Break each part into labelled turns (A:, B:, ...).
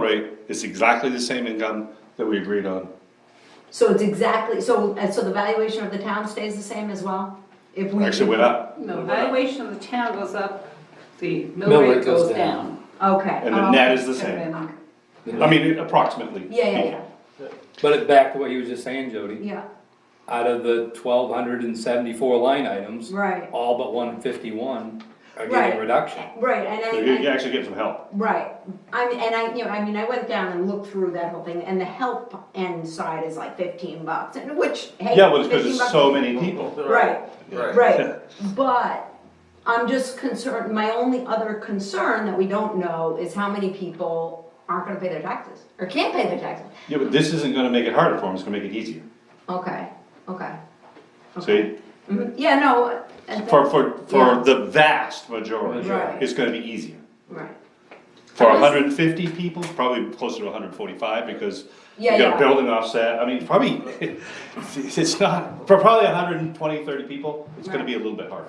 A: rate, it's exactly the same income that we agreed on.
B: So it's exactly, so, uh, so the valuation of the town stays the same as well? If we
A: Actually, went up,
C: No,
A: Went up.
C: valuation of the town goes up, the mill rate goes down.
B: Okay.
A: and the
B: um,
A: net is the
C: And
A: same.
C: then-
A: I mean, approximately.
B: Yeah, yeah, yeah,
D: But it- back to what you were just saying, Jody,
B: yeah,
D: out of the twelve hundred and seventy-four line items,
B: right,
D: all but one fifty-one are
B: Right.
D: getting a reduction.
B: right, and
A: So
B: I.
A: You
B: I-
A: you actually get some help.
B: Right, I mean, and I, you know, I mean, I went down and looked through that whole thing, and the help end side is like fifteen bucks, and which, hey.
A: Yeah, well, it's because there's
B: 15 bucks-
A: so many people.
B: Right,
E: Right.
B: right, but I'm just concerned, my only other concern that we don't know is how many people aren't gonna pay their taxes, or can't pay their taxes.
A: Yeah, but this isn't gonna make it harder for them, it's gonna make it easier.
B: Okay, okay. okay.
A: See,
B: Mhm, Yeah, no. and
A: for, for,
B: Yeah.
A: for the vast majority,
B: Right.
A: it's gonna be easier.
B: Right,
A: For
B: Unless-
A: hundred and fifty people, probably closer to hundred and forty-five, because you
B: Yeah,
A: got
B: yeah.
A: a building offset, I mean, probably, it's not, for probably hundred and twenty, thirty people, it's gonna
B: Right.
A: be a little bit harder.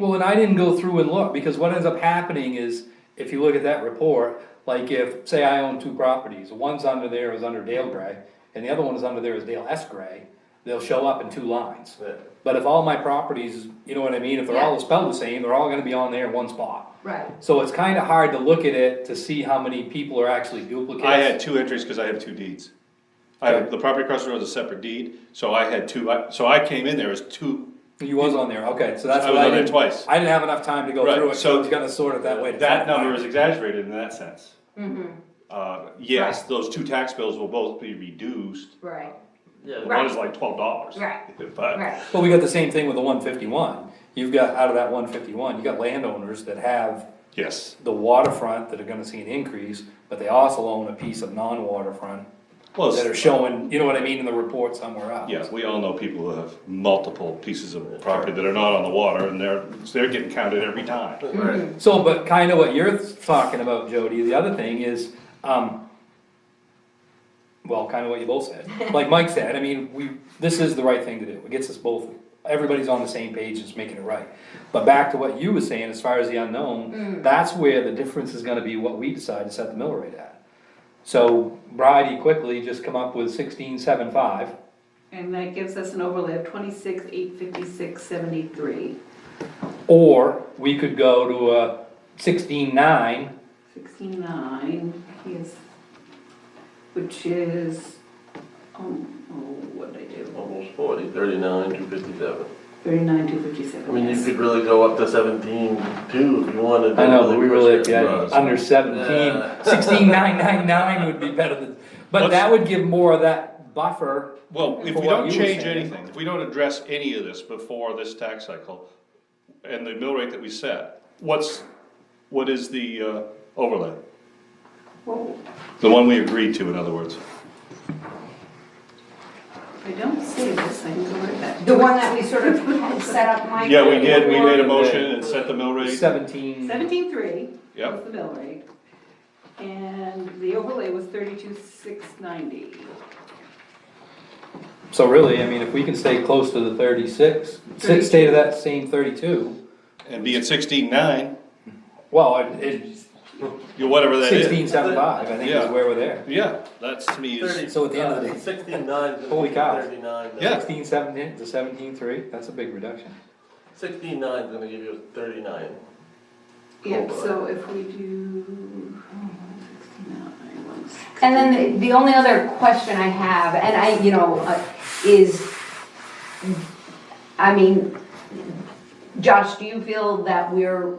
D: Well, and I didn't go through and look, because what ends up happening is, if you look at that report, like if, say I own two properties, one's under there is under Dale Gray, and the other one is under there is Dale S. Gray, they'll show up in two lines.
E: Yeah.
D: But if all my properties, you know what I mean, if they're all
B: Yeah.
D: spelled the same, they're all gonna be on there in one spot.
B: right,
D: So it's kinda hard to look at it to see how many people are actually duplicates.
A: I had two entries because I have two deeds. I have, the property across the road is a separate deed, so I had two, I- so I came in there as two,
D: You was on there, okay, so that's
A: I
D: what
A: was
D: I
A: on there
D: didn't,
A: twice.
D: I didn't have enough time to go
A: Right,
D: through it, so
A: so
D: it's gonna sort it that way. to
A: that
D: find-
A: number is exaggerated in that sense.
B: Mm-hmm.
A: Uh, yes, those two tax bills will both be reduced,
B: right,
E: Yeah.
A: one is like twelve dollars.
B: Right.
A: But,
B: right,
D: Well, we got the same thing with the one fifty-one. You've got, out of that one fifty-one, you got landowners that have
A: yes,
D: the waterfront that are gonna see an increase, but they also own a piece of non-waterfront
A: well,
D: that are
A: it's-
D: showing, you know what I mean, in the report somewhere else.
A: yeah, we all know people who have multiple pieces of property that are not on the water, and they're, they're getting counted every time.
B: Mm-hmm.
E: Right.
D: So, but kinda what you're talking about, Jody, the other thing is, um, well, kinda what you both said, like Mike said, I mean, we, this is the right thing to do, it gets us both, everybody's on the same page, it's making it right. But back to what you were saying, as far as the unknown, that's where the difference is gonna be what we decide to set the mill rate at. So, Bridie quickly just come up with sixteen seven five,
C: And that gives us an overlay of twenty-six, eight fifty-six, seventy-three,
D: or we could go to a sixteen nine,
C: sixty-nine, is, which is, um, oh, what did I do?
E: Almost forty, thirty-nine, two fifty-seven.
C: Thirty-nine, two
E: I
C: fifty-seven,
E: mean, you
C: yes.
E: could really go up to seventeen, two, if you wanted. to
D: I know, but we
E: push
D: really,
E: it.
D: yeah, under seventeen,
E: Yeah.
D: sixteen nine nine nine would be better than, but
A: What's-
D: that would give more of that buffer.
A: Well, if
D: for
A: we
D: what
A: don't
D: you were
A: change
D: saying.
A: anything, if we don't address any of this before this tax cycle, and the mill rate that we set, what's, what is the uh, overlay?
C: Well,
A: The one we agreed to, in other words.
C: I don't see this, I can go right back.
B: the one that we sort of had set up, Mike.
A: Yeah, we did, we made a
D: Yeah.
A: motion and set the mill rate,
D: Seventeen,
C: Seventeen-three.
A: yep,
C: Was the mill rate. And the overlay was thirty-two, six ninety.
D: so really, I mean, if we can stay close to the thirty-six, si- stay to that same thirty-two,
A: and be at sixteen-nine,
D: well, it, it's
A: you, whatever that
D: sixteen
A: is.
D: seven five, I think is
A: Yeah.
D: where we're there.
A: Yeah, that's to me is,
E: Thirty- uh,
D: So at the end of the day-
E: Sixty-nine. is
D: Holy cow.
E: Thirty-nine.
A: Yeah.
D: Sixteen seventeen to seventeen three, that's a big reduction.
E: Sixty-nine is gonna give you a thirty-nine.
C: Yep,
E: Overlay.
C: so if we do, sixty-nine, one sixty.
B: And then the the only other question I have, and I, you know, uh, is, I mean, Josh, do you feel that we're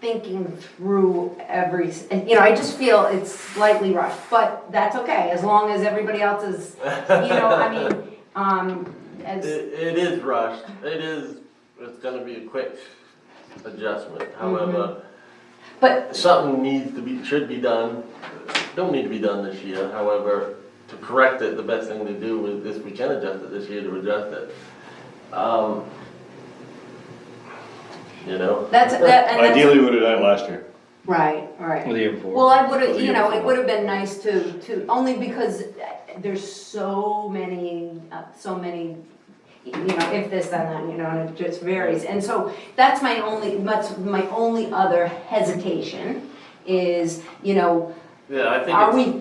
B: thinking through every, s- you know, I just feel it's slightly rushed, but that's okay, as long as everybody else is, you know, I mean, um,
E: It,
B: as,
E: it is rushed, it is, it's gonna be a quick adjustment,
D: Mm-hmm.
E: however,
B: but,
E: something needs to be, should be done, don't need to be done this year, however, to correct it, the best thing to do is, if we can adjust it this year, to adjust it. Um, You know?
B: that's, that, and that's.
A: ideally, we would've done it last year.
B: Right, right.
D: Or the year before.
B: Well, I would've,
A: Or
B: you
A: the
B: know, it
A: uniform.
B: would've been nice to, to, only because there's so many, uh, so many, you know, if this, then that, you know, and it just varies. And so that's my only, that's my only other hesitation is, you know,
E: Yeah, I think
B: are
E: it's-
B: we